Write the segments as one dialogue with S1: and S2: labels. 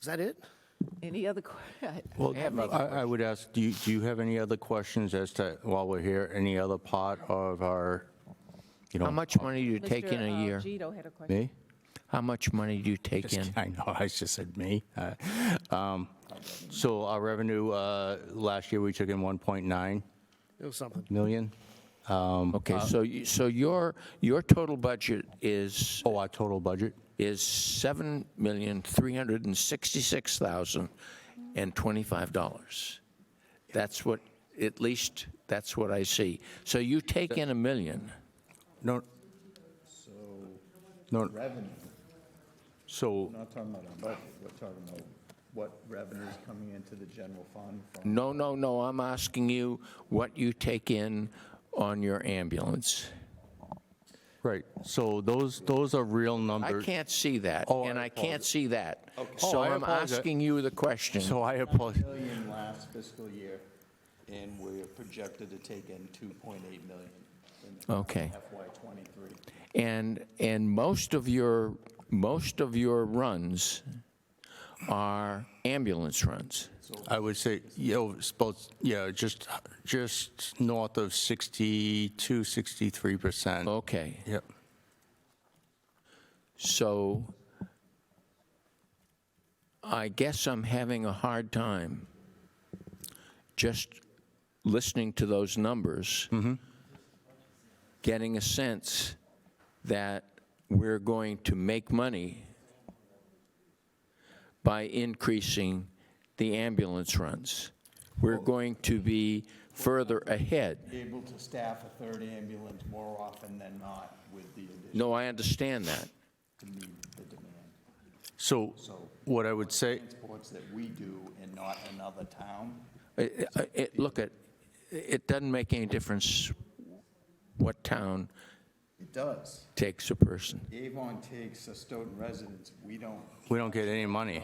S1: Is that it?
S2: Any other, que-
S3: Well,
S4: have another
S3: I, I would ask, do you, do you have any other questions as to, while we're here, any other part of our, you know?
S4: How much money do you take in
S2: Mr.
S4: a year?
S2: Gito uh, had a question.
S3: Me?
S4: How much money do you take in?
S3: I know, I just said me. Uh, um, So our revenue, uh, last year, we took in 1.9
S1: It was something.
S3: million. Um,
S4: Okay, so, you- so your, your total budget is,
S3: Oh, our total budget?
S4: is $7,366,025. That's what, at least, that's what I see. So you take in a million.
S3: No. So. No,
S5: revenue.
S3: so,
S5: We're not talking about our budget, we're talking about what revenue is coming into the general fund from
S4: No, no, no, I'm asking you what you take in on your ambulance.
S3: right, so those, those are real
S4: I
S3: numbers.
S4: can't see that,
S3: Oh, I
S4: and I can't
S3: apologize.
S4: see that.
S3: Oh,
S4: So
S3: I
S4: I'm
S3: apologize.
S4: asking you the question.
S3: So I apologize.
S5: million last fiscal year, and we're projected to take in 2.8 million in
S4: Okay.
S5: FY '23.
S4: And, and most of your, most of your runs are ambulance runs.
S3: I would say, you know, it's both, yeah, just, just north of 62, 63%.
S4: Okay,
S3: Yep.
S4: so I guess I'm having a hard time just listening to those numbers, getting a sense that we're going to make money by increasing the ambulance runs. We're going to be further ahead.
S5: Be able to staff a third ambulance more often than not with the addition
S4: No, I understand that.
S5: to meet the demand.
S3: So what I would say,
S5: Transports that we do and not another town,
S4: It- it- it- Look, it, it doesn't make any difference what town
S5: it does.
S4: takes a person,
S5: Avon takes a Stoughton residents, we don't.
S3: we don't get any money.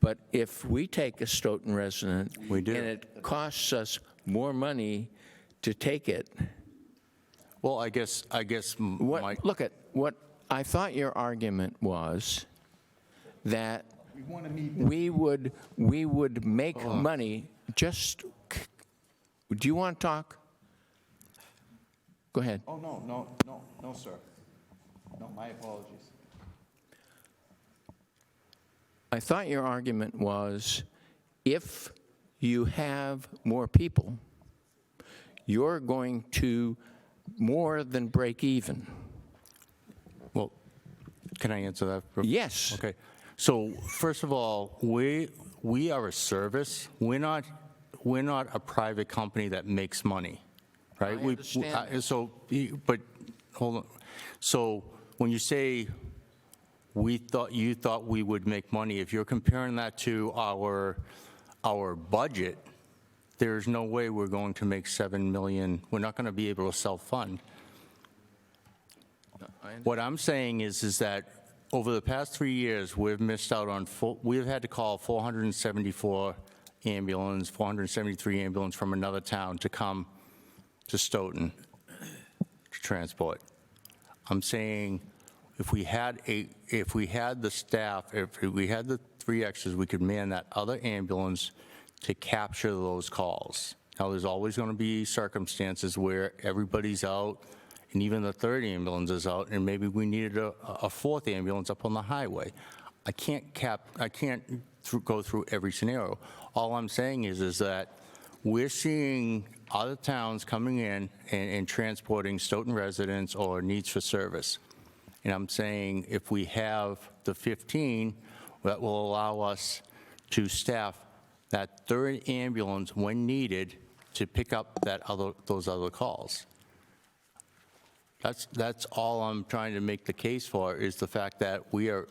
S4: but if we take a Stoughton resident.
S3: We do.
S4: And it costs us more money to take it.
S3: Well, I guess, I guess m- my,
S4: What, look, at what, I thought your argument was that
S5: We want to meet the
S4: we would, we would make money just, c- do you want to talk? Go ahead.
S5: Oh, no, no, no, no, sir. No, my apologies.
S4: I thought your argument was if you have more people, you're going to more than break even.
S3: well, can I answer that? bro-
S4: Yes.
S3: Okay. So first of all, we, we are a service. We're not, we're not a private company that makes money, right? We-
S4: understand
S3: I- So, you- but, hold on. So when you say we thought, you thought we would make money, if you're comparing that to our, our budget, there's no way we're going to make 7 million. We're not going to be able to self-fund. What I'm saying is, is that over the past three years, we've missed out on, four- we've had to call 474 ambulance, 473 ambulance from another town to come to Stoughton to transport. I'm saying if we had a, if we had the staff, if we had the three extras, we could man that other ambulance to capture those calls. Now, there's always going to be circumstances where everybody's out and even the third ambulance is out and maybe we needed a, a fourth ambulance up on the highway. I can't cap, I can't through, go through every scenario. All I'm saying is, is that we're seeing other towns coming in and, and transporting Stoughton residents or needs for service. And I'm saying if we have the 15, that will allow us to staff that third ambulance when needed to pick up that other, those other calls. That's, that's all I'm trying to make the case for, is the fact that we are,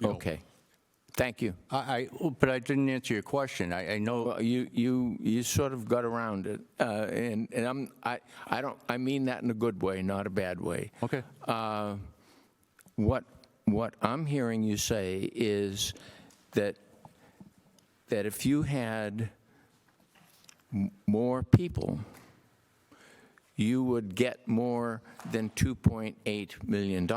S3: you know,
S4: Okay. Thank you.
S3: I, I- oh, but I didn't answer your question. I, I know.
S4: Well, you, you, you sort of got around it, uh, and, and I'm, I, I don't, I mean that in a good way, not a bad way.
S3: Okay.
S4: What, what I'm hearing you say is that, that if you had m- more people, you would get more than $2.8 million.